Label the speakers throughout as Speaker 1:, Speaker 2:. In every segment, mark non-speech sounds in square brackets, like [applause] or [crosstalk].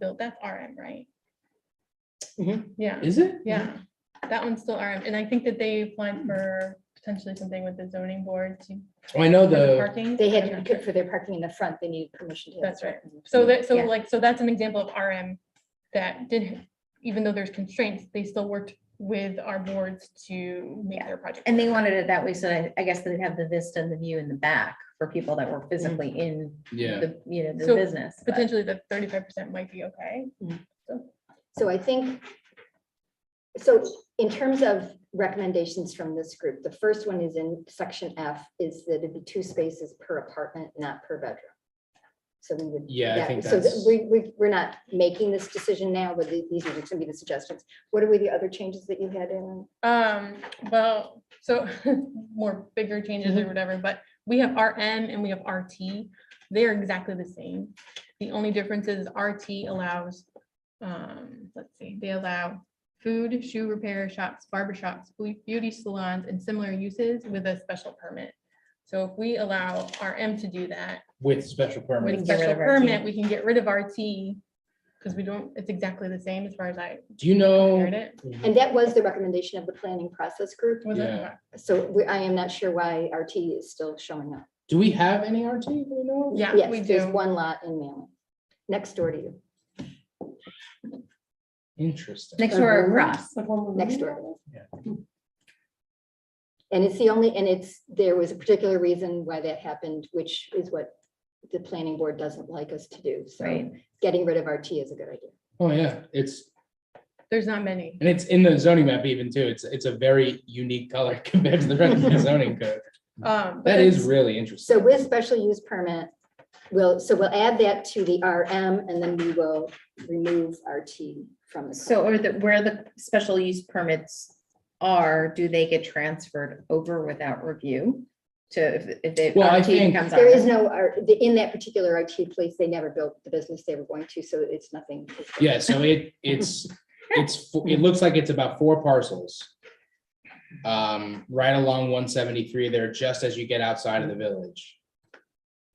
Speaker 1: built, that's RM, right?
Speaker 2: Mhm.
Speaker 1: Yeah,
Speaker 3: Is it?
Speaker 1: yeah, that one's still RM, and I think that they applied for potentially something with the zoning board to.
Speaker 3: Oh, I know
Speaker 1: for the
Speaker 3: the,
Speaker 1: Parking.
Speaker 2: They
Speaker 1: I'm
Speaker 2: had,
Speaker 1: not
Speaker 2: to
Speaker 1: sure.
Speaker 2: for their parking in the front, they needed permission to. have
Speaker 1: That's right.
Speaker 2: parking.
Speaker 1: So that, so
Speaker 2: Yeah.
Speaker 1: like, so that's an example of RM that did, even though there's constraints, they still worked with our boards to make
Speaker 4: Yeah.
Speaker 1: their project.
Speaker 4: And they
Speaker 1: work.
Speaker 4: wanted it that way, so I, I guess they'd have the vista and the view in the back for people that
Speaker 2: Mm.
Speaker 4: were physically in
Speaker 3: yeah,
Speaker 4: the, you know, the
Speaker 1: So,
Speaker 4: business. but-
Speaker 1: Potentially the thirty-five percent might be okay.
Speaker 2: So I think, so in terms of recommendations from this group, the first one is in section F, is that it'd be two spaces per apartment, not per bedroom. So we would.
Speaker 3: Yeah, I
Speaker 2: that-
Speaker 3: think
Speaker 2: So that
Speaker 3: that's-
Speaker 2: we, we, we're not making this decision now, but the- these are just gonna be the suggestions. What are we, the other changes that you had in?
Speaker 1: Um, well, so [laughs] more bigger changes
Speaker 4: Mm-hmm.
Speaker 1: or whatever, but we have RM and we have RT. They're exactly the same. The only difference is RT allows, um, let's see, they allow food, shoe repair shops, barber shops, beau- beauty salons, and similar uses with a special permit. So if we allow RM to do that
Speaker 3: with special
Speaker 1: with
Speaker 3: permit.
Speaker 4: can get rid
Speaker 1: special
Speaker 4: of RT.
Speaker 1: permit, we can get rid of RT. Because we don't, it's exactly the same as far as I
Speaker 3: Do you
Speaker 4: Oh.
Speaker 1: heard
Speaker 3: know?
Speaker 1: it.
Speaker 2: And that was the recommendation of the planning process group.
Speaker 1: Was it?
Speaker 3: Yeah.
Speaker 2: So we, I am not sure why RT is still showing up.
Speaker 3: Do we have any RT? Do we know?
Speaker 1: Yeah, we
Speaker 2: Yes, there's
Speaker 1: do.
Speaker 2: one lot in Mammoth, next door to you,
Speaker 3: Interesting.
Speaker 4: Next door across.
Speaker 2: next
Speaker 4: Mhm.
Speaker 2: door.
Speaker 3: Yeah.
Speaker 2: And it's the only, and it's, there was a particular reason why that happened, which is what the planning board doesn't like us to do. So
Speaker 4: Right.
Speaker 2: getting rid of RT is a good idea.
Speaker 3: Oh, yeah, it's,
Speaker 1: There's not many.
Speaker 3: and it's in the zoning map even too. It's, it's a very unique color [laughs] compared to the rest
Speaker 1: [laughs]
Speaker 3: of the zoning code.
Speaker 4: Mm-hmm.
Speaker 1: Um, but
Speaker 3: That is
Speaker 1: it's-
Speaker 3: really interesting.
Speaker 2: So with special use permit, we'll, so we'll add that to the RM and then we will remove RT from the.
Speaker 4: So, or the, where the special use permits are, do they get transferred over without review? To, if- if they.
Speaker 3: Well, I
Speaker 4: RT
Speaker 3: think-
Speaker 4: becomes
Speaker 2: There is
Speaker 4: RM?
Speaker 2: no, R- the- in that particular RT place, they never built the business they were going to, so it's nothing.
Speaker 3: Yeah, so it,
Speaker 2: [laughs]
Speaker 3: it's, it's, fo- it looks like it's about four parcels. Um, right along one seventy-three there, just as you get outside of the village.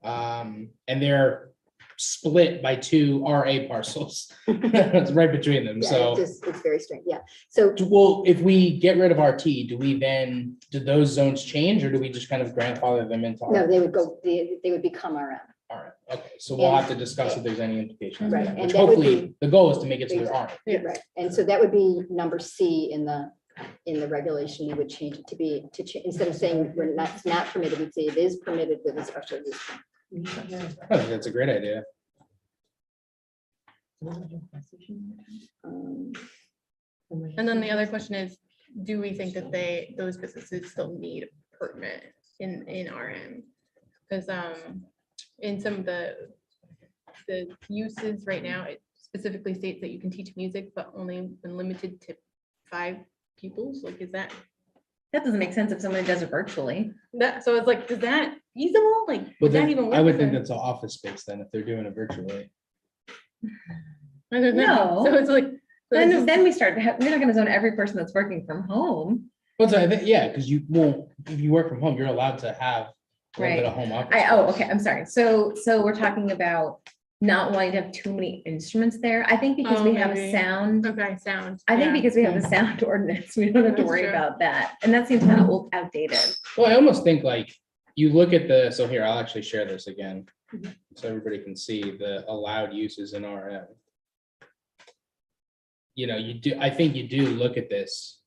Speaker 3: Um, and they're split by two RA parcels. [laughs] It's right between them,
Speaker 2: Yeah,
Speaker 3: so.
Speaker 2: it's just- It's very strange, yeah. So
Speaker 3: Do- Well, if we get rid of RT, do we then, do those zones change or do we just kind of grandfather them into?
Speaker 2: No,
Speaker 3: RT?
Speaker 2: they would go, they, they would become RM.
Speaker 3: All right, okay, so we'll
Speaker 2: And-
Speaker 3: have to discuss if there's any implications. of
Speaker 2: Right,
Speaker 3: that,
Speaker 2: and
Speaker 3: Which
Speaker 2: that would
Speaker 3: hopefully,
Speaker 2: be-
Speaker 3: the goal is to make it so there aren't.
Speaker 1: Yeah.
Speaker 2: Right, and so that would be number C in the, in the regulation, you would change it to be, to, cha- instead of saying we're not, it's not permitted, we'd say it is permitted with a special use. permit.
Speaker 3: I think [laughs] That's a great idea.
Speaker 2: Um,
Speaker 1: And then the other question is, do we think that they, those businesses still need a permit in, in RM? Because, um, in some of the, the uses right now, it specifically states that you can teach music, but only when limited to five pupils, like, is that,
Speaker 4: That doesn't make sense if someone does it virtually.
Speaker 1: that, so it's like, is that feasible, like,
Speaker 3: But
Speaker 1: would that
Speaker 3: then,
Speaker 1: even work?
Speaker 3: I would
Speaker 1: for-
Speaker 3: think that's all office space then, if they're doing it virtually.
Speaker 1: I don't know. [laughs]
Speaker 4: No.
Speaker 1: So it's like. so it's
Speaker 4: Then,
Speaker 1: just-
Speaker 4: then we start, to have- we're not gonna zone every person that's working from home.
Speaker 3: But I think, yeah, because you, well, if you work from home, you're allowed to have a little bit
Speaker 4: Right.
Speaker 3: of home office.
Speaker 4: I, oh,
Speaker 3: space.
Speaker 4: okay, I'm sorry. So, so we're talking about not wanting to have too many instruments there. I think because
Speaker 1: Oh,
Speaker 4: we have a
Speaker 1: maybe.
Speaker 4: sound.
Speaker 1: Okay, sound.
Speaker 4: I
Speaker 1: yeah.
Speaker 4: think because we have the sound [laughs] ordinance, we don't have to
Speaker 1: That's
Speaker 4: worry
Speaker 1: true.
Speaker 4: about that. And that seems kind of old outdated.
Speaker 3: Well, I almost think like, you look at the, so here, I'll actually share this again,
Speaker 4: Mm-hmm.
Speaker 3: so everybody can see the allowed uses in RM. You know, you do, I think you do look at this,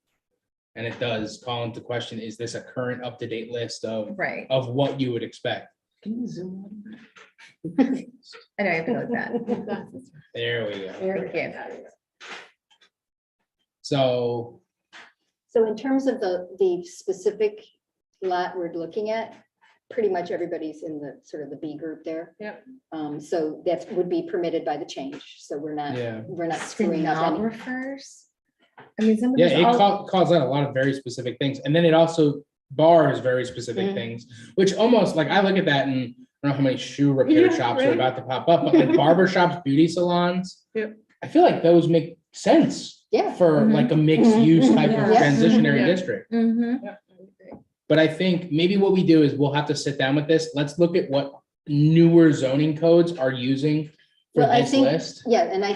Speaker 3: and it does call into question, is this a current up-to-date list of,
Speaker 4: Right.
Speaker 3: of what you would expect?
Speaker 4: I know, I have to look
Speaker 1: [laughs]
Speaker 4: at that.
Speaker 3: There we go.
Speaker 4: Thank you.
Speaker 3: So,
Speaker 2: So in terms of the, the specific lot we're looking at, pretty much everybody's in the, sort of the B group there.
Speaker 1: Yep.
Speaker 2: Um, so that would be permitted by the change, so we're
Speaker 1: Uh,
Speaker 2: not,
Speaker 3: yeah.
Speaker 2: we're not screwing up any.
Speaker 4: Stenographers? I mean, some of
Speaker 3: Yeah, it
Speaker 4: these, all-
Speaker 3: ca- calls out a lot of very specific things, and then it also bars very specific
Speaker 1: Mm-hmm.
Speaker 2: Mhm.
Speaker 3: things, which almost like I look at that and I don't know how many shoe repair
Speaker 1: Yeah,
Speaker 3: shops are
Speaker 1: right.
Speaker 3: about to pop up,
Speaker 1: [laughs]
Speaker 3: but like barber shops, beauty salons.
Speaker 1: Yep. Mm-hmm.
Speaker 3: I feel like those make sense
Speaker 2: Yeah.
Speaker 3: for
Speaker 4: Mhm.
Speaker 3: like a mixed use type of
Speaker 1: Yeah.
Speaker 2: Yeah.
Speaker 3: transitionary
Speaker 1: Yeah.
Speaker 3: district.
Speaker 4: Mhm.
Speaker 1: Yeah, I would agree.
Speaker 3: But I think maybe what we do is we'll have to sit down with this. Let's look at what newer zoning codes are using for
Speaker 2: Well, I
Speaker 3: this
Speaker 2: think-
Speaker 3: list.
Speaker 2: Yeah, and I